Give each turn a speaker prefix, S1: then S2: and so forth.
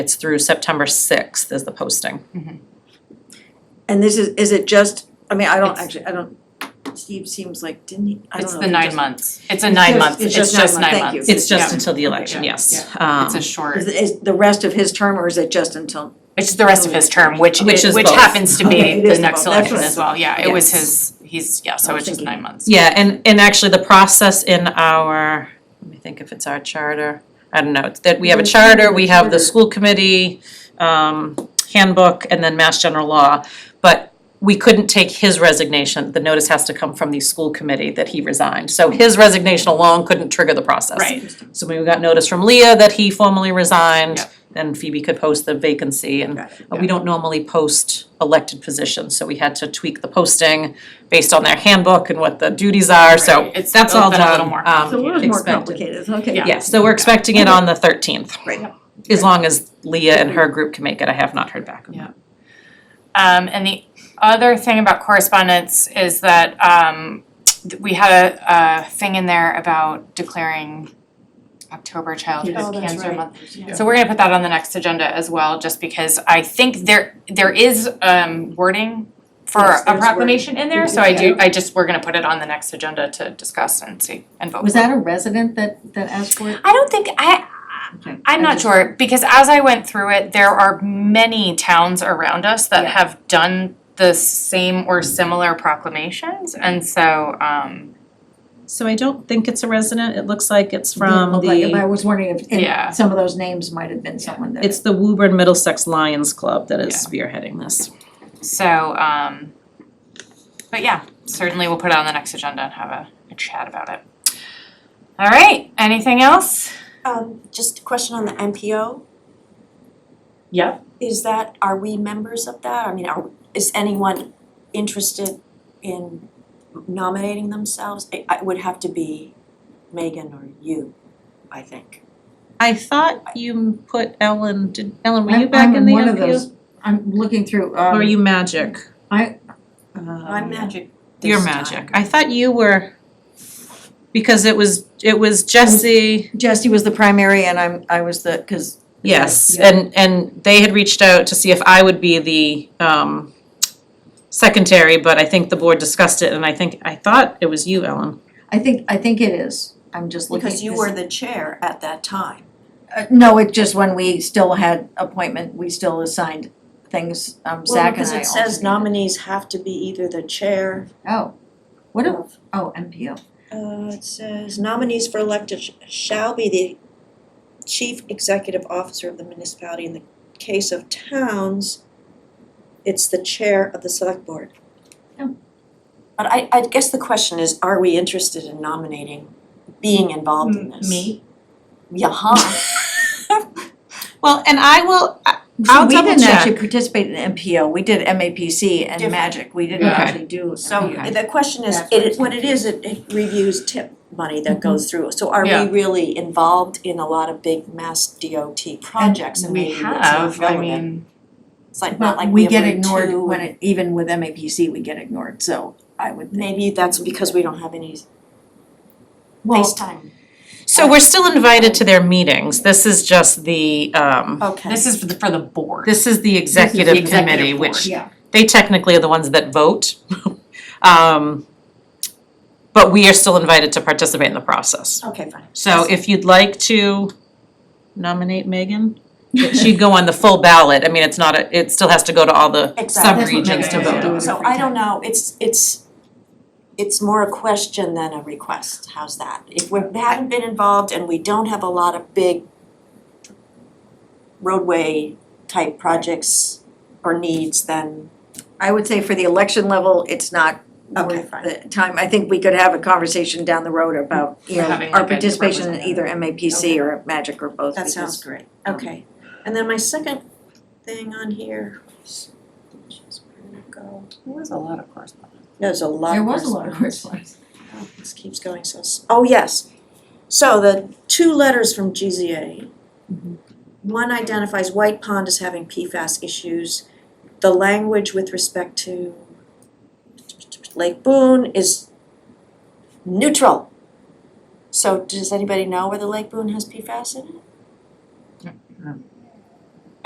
S1: It's through September sixth is the posting.
S2: And this is, is it just, I mean, I don't
S3: It's-
S2: actually, I don't, Steve seems like, didn't he, I don't
S3: It's
S2: know.
S3: the
S2: if he
S3: nine
S2: just-
S3: months. It's a nine
S2: just-
S3: month, it's just nine
S2: thank you.
S3: months.
S1: It's just
S3: Yeah.
S1: until the election,
S3: Yeah,
S1: yes.
S3: It's
S1: Um,
S3: a short,
S2: Is, is the rest of his term or is it just until,
S3: it's just the rest of his term, which
S1: Which
S3: is,
S1: is
S3: which
S1: both.
S3: happens to
S2: Okay,
S3: be
S2: it
S3: the
S2: is
S3: next
S2: both. That's
S3: election
S2: what I
S3: as well. Yeah, it was
S1: Yes.
S3: his, he's, yeah, so
S2: I was
S3: it's just
S2: thinking-
S3: nine months.
S1: Yeah, and, and actually the process in our, let me think if it's our charter, I don't know, it's that we have a charter, we have the school committee, um, handbook, and then mass general law. But we couldn't take his resignation, the notice has to come from the school committee that he resigned. So his resignation alone couldn't trigger the process.
S3: Right,
S1: So when we got notice from Leah that he formally resigned,
S3: Yep.
S1: then Phoebe could post the vacancy and
S2: Got it.
S1: uh, we don't normally post elected positions, so we had to tweak the posting based on their handbook and what the duties are, so
S3: Right. It's
S1: that's
S3: built
S1: all
S3: in
S1: done.
S3: a little more
S1: um,
S2: so it was more
S1: expected.
S2: complicated, okay.
S3: Yeah.
S1: Yeah, so we're expecting it on the thirteenth.
S2: Right.
S1: As long as Leah and her group can make it, I have not heard back. on
S3: Yeah. Um, and the other thing about correspondence is that, um, th- we had a, a thing in there about declaring October childhood
S2: Oh, that's
S3: cancer
S2: right.
S3: month. So we're gonna put that on the next agenda as well, just because I think there, there is, um, wording for
S2: Yes,
S3: a
S2: there's
S3: proclamation in there, so I do, I just, we're gonna put it on the next agenda to discuss and see, and vote.
S4: Was that a resident that, that asked for it?
S3: I don't think, I,
S4: Okay.
S3: I'm
S4: I
S3: not
S4: just-
S3: sure, because as I went through it, there are many towns around us that
S4: Yeah.
S3: have done the same or similar proclamations, and so, um,
S1: So I don't think it's a resident, it looks like it's
S4: Didn't
S1: from
S4: look like it, Oh, but I
S1: the,
S4: was wondering if,
S3: Yeah.
S4: and some of those names might have been someone that.
S1: it's the Woburn Middlesex Lions Club that is
S3: Yeah.
S1: spearheading this.
S3: so, um, but yeah, certainly we'll put it on the next agenda and have a, a chat about it. All right, anything else?
S5: Um, just a question on the MPO,
S3: Yeah.
S5: is that, are we members of that? I mean, are, is anyone interested in nominating themselves? It, it would have to be Megan or you, I think.
S1: I thought you put Ellen, did, Ellen, were
S4: I'm-
S1: you back
S4: I'm
S1: in the
S4: one of
S1: MPO?
S4: those- I'm looking through,
S1: Or
S4: um. uh,
S1: are you magic?
S4: I-
S5: I'm magic
S1: Your
S5: this
S1: magic.
S5: time.
S1: I thought you were, because it was, it was Jesse,
S2: Jesse was the primary and I'm, I was the, cause
S1: yes,
S2: Yeah.
S1: and, and they had reached out to see if I would be the, um, secretary, but I think the board discussed it, and I think, I thought it was you, Ellen.
S4: I think, I think it is, I'm just looking.
S5: Because you
S4: this-
S5: were the chair at that time.
S4: Uh, no, it just when we still had appointment, we still assigned things, um, Zach and I
S5: Well, because it says
S4: alternated.
S5: nominees have to be either the chair
S4: Oh, what, a-
S5: of-
S4: oh, MPO,
S5: Uh, it says nominees for elected sh- shall be the chief executive officer of the municipality. In the case of towns, it's the chair of the select board.
S4: Oh.
S5: But I, I guess the question is, are we interested in nominating, being involved in this?
S3: Me?
S5: Yeah.
S1: Well, and I will,
S2: so
S1: I'll
S2: we didn't
S1: double check.
S2: actually participate in MPO, we did MAPC and
S5: Different.
S2: magic, we didn't
S3: Okay.
S2: actually do
S5: So
S2: MPO.
S5: the question is,
S4: That's what
S5: it,
S4: it's- Mm-hmm.
S5: what it is, it, it reviews tip money that goes through. So are
S3: Yeah.
S5: we really involved in a lot of big mass DOT projects and
S3: We
S5: maybe it's not
S3: have, I
S5: relevant?
S3: mean,
S5: It's like, not
S4: but
S5: like
S4: we
S5: we
S4: get
S5: have Route
S4: ignored
S5: two
S4: when it, even with MAPC, we get ignored, so I would think.
S5: Maybe that's because we don't have any
S4: Well,
S5: FaceTime.
S1: so we're still invited to their meetings, this is just the, um,
S5: Okay.
S3: this is for the, for the board.
S1: this is the executive
S3: executive
S1: committee,
S3: board.
S1: which
S4: yeah,
S1: they technically are the ones that vote. Um, but we are still invited to participate in the process.
S5: Okay, fine.
S1: So if you'd like to nominate Megan, she'd go on the full ballot. I mean, it's not, a. it still has to go to all the
S5: Exactly.
S4: That's what
S1: sub-regions to
S3: Megan
S1: vote
S3: is
S1: on.
S3: doing.
S5: So I don't know, it's, it's, it's more a question than a request, how's that? If we haven't been involved and we don't have a lot of big roadway type projects or needs, then
S2: I would say for the election level, it's not
S5: Okay,
S2: worth
S5: fine.
S2: the time. I think we could have a conversation down the road about,
S5: Mm-hmm.
S2: you know,
S3: Having
S2: our
S3: like a
S2: participation in
S3: representative.
S2: either MAPC or Magic or both.
S5: that
S2: because-
S5: sounds great. Okay. And then my second thing on here. Where'd it go?
S3: There was a lot of correspondence.
S5: There's a lot
S4: there
S5: of
S4: was a lot of
S5: correspondence.
S4: correspondence.
S5: Oh, This keeps going so, s- oh, yes. So the two letters from GZA. One identifies White Pond as having PFAS issues. The language with respect to Lake Boone is neutral. So does anybody know whether Lake Boone has PFAS in it?